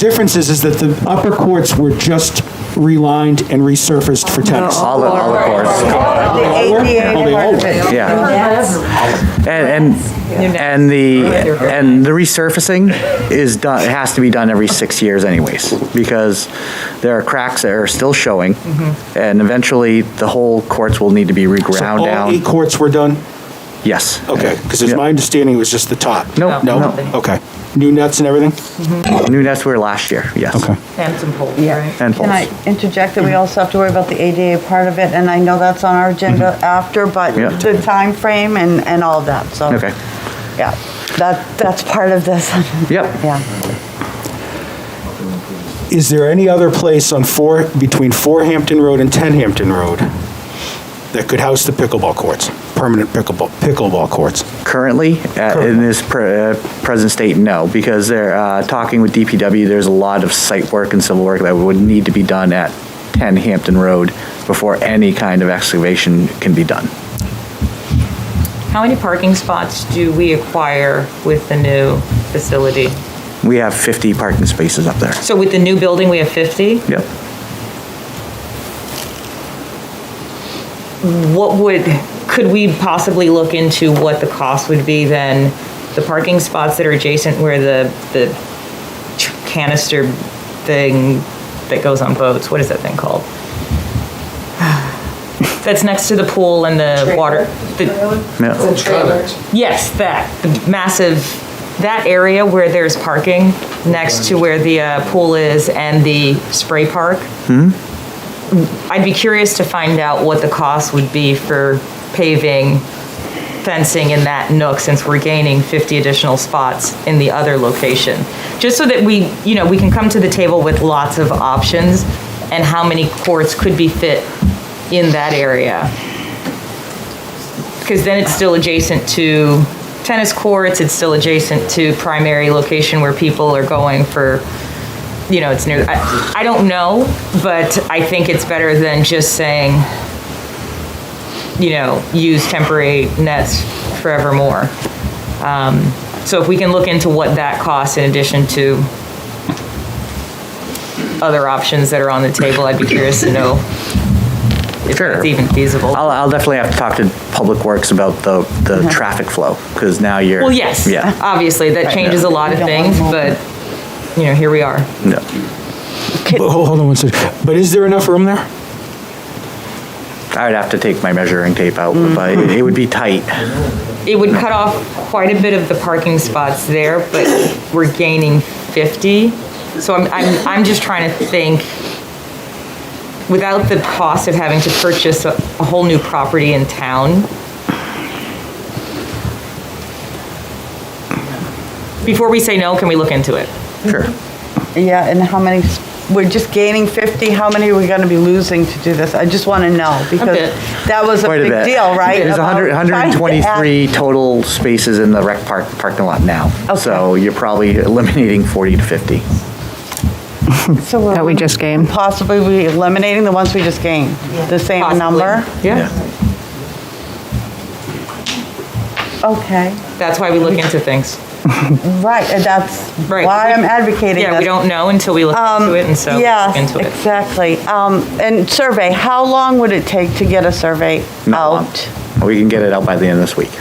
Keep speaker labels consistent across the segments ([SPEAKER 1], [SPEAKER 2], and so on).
[SPEAKER 1] difference is, is that the upper courts were just relined and resurfaced for tennis.
[SPEAKER 2] All the, all the courts, yeah. And, and, and the, and the resurfacing is done, it has to be done every six years anyways, because there are cracks that are still showing, and eventually, the whole courts will need to be reground
[SPEAKER 1] Mm-hmm. All eight
[SPEAKER 2] down.
[SPEAKER 1] courts were done?
[SPEAKER 2] Yes.
[SPEAKER 1] Okay, because it's
[SPEAKER 2] Yeah.
[SPEAKER 1] my understanding it was just the top.
[SPEAKER 2] Nope,
[SPEAKER 1] No?
[SPEAKER 2] no.
[SPEAKER 1] Okay. New nets and everything?
[SPEAKER 2] New nets were last year, yes.
[SPEAKER 1] Okay.
[SPEAKER 3] Hampton Pool,
[SPEAKER 4] Yeah.
[SPEAKER 3] right?
[SPEAKER 2] And
[SPEAKER 4] Can I
[SPEAKER 2] poles.
[SPEAKER 4] interject that we also have to worry about the ADA part of it, and I know that's on our agenda after, but
[SPEAKER 2] Mm-hmm. Yeah.
[SPEAKER 4] the time frame and, and all of that, so.
[SPEAKER 2] Okay.
[SPEAKER 4] Yeah, that, that's part of this.
[SPEAKER 2] Yep.
[SPEAKER 4] Yeah.
[SPEAKER 1] Is there any other place on four, between Four Hampton Road and Ten Hampton Road that could house the pickleball courts, permanent pickleball, pickleball courts?
[SPEAKER 2] Currently, at- in this pre- uh, present state, no, because they're uh, talking with DPW, there's a lot of site work and civil work that would need to be done at 10 Hampton Road before any kind of excavation can be done.
[SPEAKER 5] How many parking spots do we acquire with the new facility?
[SPEAKER 2] We have 50 parking spaces up there.
[SPEAKER 5] So with the new building, we have 50?
[SPEAKER 2] Yep.
[SPEAKER 5] What would, could we possibly look into what the cost would be then? The parking spots that are adjacent where the, the tr- canister thing that goes on boats, what is that thing called? That's next to the pool and the water. the-
[SPEAKER 2] Yeah.
[SPEAKER 5] Yes, that, the massive, that area where there's parking next to where the uh, pool is and the spray park. I'd be curious to find out what the cost would be for paving, fencing in that nook, since we're gaining 50 additional spots in the other location. Just so that we, you know, we can come to the table with lots of options and how many courts could be fit in that area because then it's still adjacent to tennis courts, it's still adjacent to primary location where people are going for, you know, it's near, I, I don't know, but I think it's better than just saying, you know, use temporary nets forevermore. Um, so if we can look into what that costs in addition to other options that are on the table, I'd be curious to know if
[SPEAKER 2] Sure.
[SPEAKER 5] it's even feasible.
[SPEAKER 2] I'll, I'll definitely have to talk to Public Works about the, the traffic flow, because now you're.
[SPEAKER 5] Mm-hmm. Well, yes. Uh-huh.
[SPEAKER 2] Yeah.
[SPEAKER 5] Obviously, that changes a lot of
[SPEAKER 4] We don't want
[SPEAKER 5] things,
[SPEAKER 4] more.
[SPEAKER 5] but, you know, here we are.
[SPEAKER 2] No.
[SPEAKER 1] But ho- Hold on one second. But is there enough room there?
[SPEAKER 2] I would have to take my measuring tape out, but
[SPEAKER 5] Mm-hmm.
[SPEAKER 2] it would be tight.
[SPEAKER 5] It would cut off quite a bit of the parking spots there, but we're gaining 50. So I'm, I'm, I'm just trying to think, without the cost of having to purchase a, a whole new property in town. Before we say no, can we look into it?
[SPEAKER 2] Sure.
[SPEAKER 4] Yeah, and how many, s- we're just gaining 50, how many are we gonna be losing to do this? I just wanna know, because
[SPEAKER 5] bit.
[SPEAKER 4] that was a
[SPEAKER 2] Quite a
[SPEAKER 4] big
[SPEAKER 2] bit.
[SPEAKER 4] deal, right?
[SPEAKER 2] There's
[SPEAKER 4] About
[SPEAKER 2] 100
[SPEAKER 4] trying to add-
[SPEAKER 2] 123 total spaces in the rec park, parking lot now. So you're probably eliminating 40 to 50.
[SPEAKER 4] So we're
[SPEAKER 6] That we just gained.
[SPEAKER 4] Possibly we eliminating the ones we just gained, the same
[SPEAKER 5] Possibly.
[SPEAKER 4] number?
[SPEAKER 5] Yeah,
[SPEAKER 4] Okay.
[SPEAKER 5] that's why we look into things.
[SPEAKER 4] Right, and that's
[SPEAKER 5] Right.
[SPEAKER 4] why I'm advocating
[SPEAKER 5] Yeah, we
[SPEAKER 4] this.
[SPEAKER 5] don't know until we look into it, and so
[SPEAKER 4] Yes,
[SPEAKER 5] look into it.
[SPEAKER 4] exactly. Um, And survey, how long would it take to get a survey
[SPEAKER 2] Not long.
[SPEAKER 4] out?
[SPEAKER 2] We can get it out by the end of this week.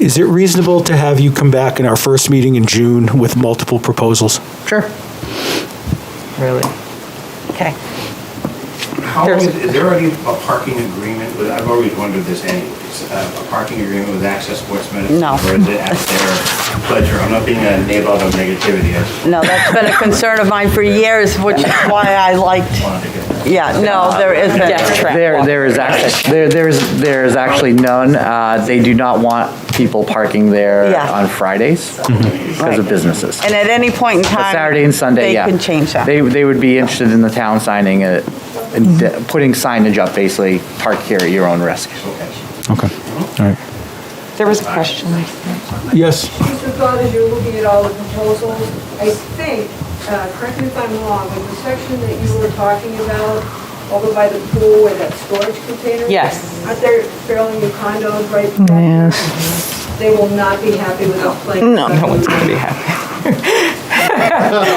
[SPEAKER 1] Is it reasonable to have you come back in our first meeting in June with multiple proposals?
[SPEAKER 2] Sure.
[SPEAKER 5] Really.
[SPEAKER 4] Okay.
[SPEAKER 7] How
[SPEAKER 5] There's-
[SPEAKER 7] is, is there already a parking agreement with, I've always wondered this anyways, uh, a parking agreement with Access Sportsman?
[SPEAKER 4] No.
[SPEAKER 7] Or is it at their pleasure? I'm not being a navel of negativity, I just
[SPEAKER 4] No, that's been a concern of mine for years, which is why I liked,
[SPEAKER 7] wanted to get that.
[SPEAKER 4] yeah, no, there isn't.
[SPEAKER 2] There, there is actually, there, there is, there is actually none. Uh, They do not want people parking there
[SPEAKER 4] Yeah.
[SPEAKER 2] on Fridays because of
[SPEAKER 4] Right.
[SPEAKER 2] businesses.
[SPEAKER 4] And at any point in
[SPEAKER 2] But
[SPEAKER 4] time.
[SPEAKER 2] Saturday and Sunday, yeah.
[SPEAKER 4] They can change that. Mm-hmm.
[SPEAKER 2] They, they would be interested in the town signing it, and de- putting signage up, basically, park here at your own risk.
[SPEAKER 1] Okay, all right.
[SPEAKER 5] There was a question.
[SPEAKER 1] Yes?
[SPEAKER 8] Just the thought as you're looking at all the proposals, I think, uh, correct me if I'm wrong, but the section that you were talking about over by the pool where that storage container.
[SPEAKER 5] Yes.
[SPEAKER 8] Aren't there fairly new condos right? Yes. They will not be happy without playing.
[SPEAKER 5] No one's going to be happy.